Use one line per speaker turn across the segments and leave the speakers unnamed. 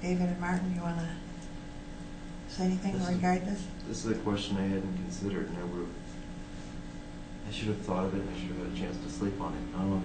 David and Martin, you want to say anything
This is-
regarding this?
This is a question I hadn't considered, and I would have, I should have thought of it, and I should have had a chance to sleep on it. Um,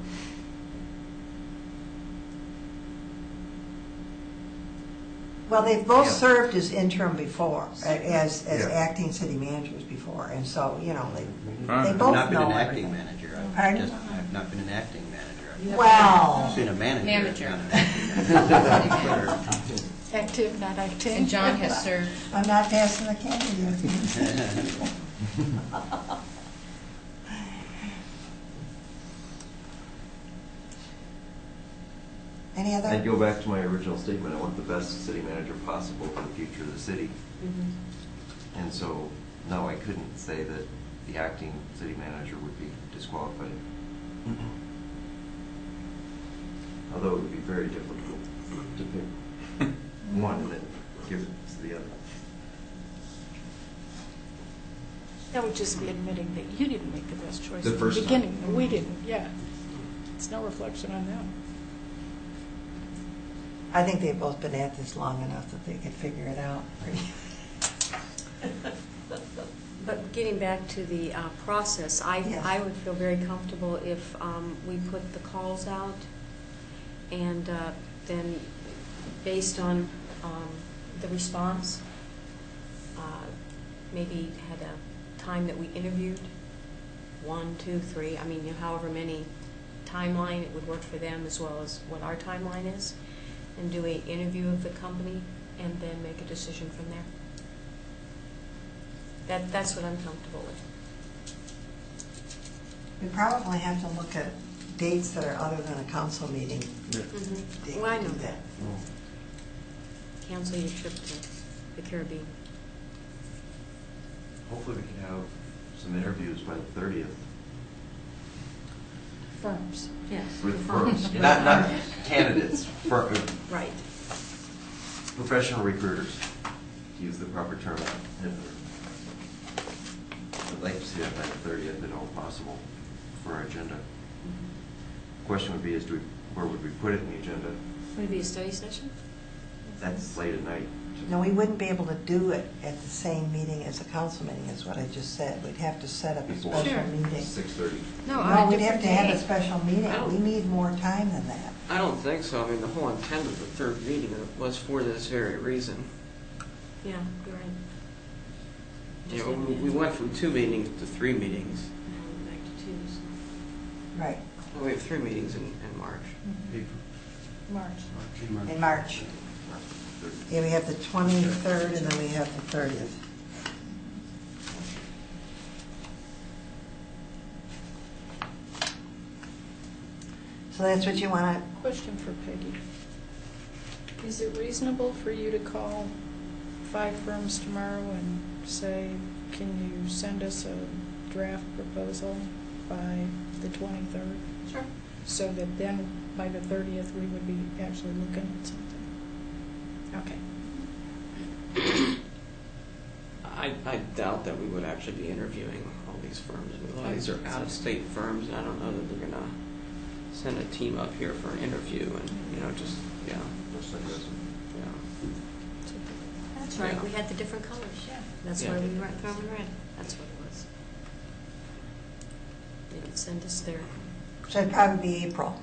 Well, they've both
Yeah.
served as interim before, a- as, as
Yeah.
acting city managers before, and so, you know, they,
Alright.
they
I've
both
not been
know
an acting
everything.
manager. I've
Pardon?
just- I've not been an acting manager. I've
Well,
been a manager.
Manager.
not an acting manager.
Active, not active.
And John has served,
I'm not passing the candy. Any other?
I'd go back to my original statement, I want the best city manager possible for the future of the city. And so, no, I couldn't say that the acting city manager would be disqualified. Although it would be very difficult to pick one and then give it to the other.
That would just be admitting that you didn't make the best choice
The
at the
first time.
beginning, and we didn't, yeah. It's no reflection on them.
I think they've both been at this long enough that they could figure it out.
But getting back to the uh, process, I,
Yes.
I would feel very comfortable if um, we put the calls out, and uh, then, based on um, the response, uh, maybe had a time that we interviewed, one, two, three, I mean, you know, however many timeline, it would work for them as well as what our timeline is, and do a interview of the company, and then make a decision from there. That, that's what I'm comfortable with.
We probably have to look at dates that are other than a council meeting. date
Well, I
to
know
do
that. Mm-hmm. Cancel your trip to the Caribbean.
Hopefully we can have some interviews by the thirtieth.
Firms. Yes.
With firms,
With
not, not
firms.
candidates, fir- uh,
Right.
professional recruiters, to use the proper term. I'd like to see that by the thirtieth, if at all possible, for our agenda.
Mm-hmm.
Question would be is, do we, where would we put it in the agenda?
Would it be a study session?
That's late at night.
No, we wouldn't be able to do it at the same meeting as a council meeting, is what I just said. We'd have to set up a
Before
special
Sure.
meeting.
Six thirty.
no,
No,
on a
we'd have
different
to have a
day.
special meeting.
I don't-
We need more time than that.
I don't think so. I mean, the whole intent of the third meeting was for this very reason.
Yeah, you're right.
You know, we we went from two meetings to three meetings.
Back to twos.
Right,
Well, We have three meetings in, in March.
March.
in March. Yeah, we have the 23rd, and then we have the 30th. So that's what you want to,
Question for Peggy. Is it reasonable for you to call five firms tomorrow and say, can you send us a draft proposal by the 23rd?
Sure.
So that then, by the 30th, we would be actually looking at something? Okay.
I, I doubt that we would actually be interviewing all these firms. I mean, A lot of these are out-of-state firms, and I don't know that they're gonna send a team up here for an interview and, you know, just, yeah, yeah.
That's right, we had the different colors.
Yeah.
That's
Yeah.
why we were throwing red. That's what it was. They could send us their.
so it'd probably be April,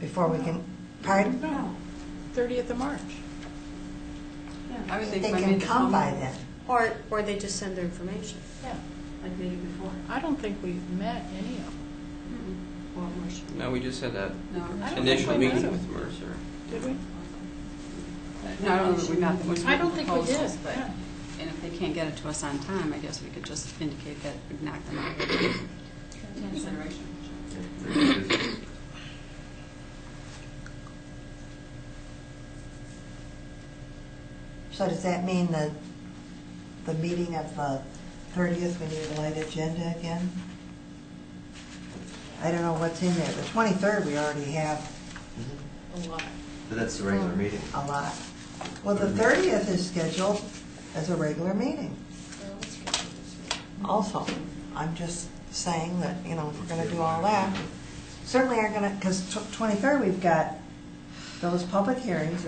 before we can, pardon?
No, 30th of March.
I would
They
think by
can
mid-
come by then.
Or, or they just send their information,
Yeah.
like we did before.
I don't think we've met any of them,
Well, Marcia.
No, we just had that
No,
I don't
initial
think we
meeting
met
with
them.
Mercer.
did we?
no, I don't think we met them. with
I don't think we did,
proposals, But,
yeah.
and if they can't get it to us on time, I guess we could just indicate that we've knocked them out. Consideration.
So does that mean that the meeting of the 30th, we need a light agenda again? I don't know what's in there. The 23rd, we already have
A lot.
But that's the regular meeting.
a lot. Well, the 30th is scheduled as a regular meeting also. I'm just saying that, you know, if we're going to do all that, certainly are going to, because 23rd, we've got those public hearings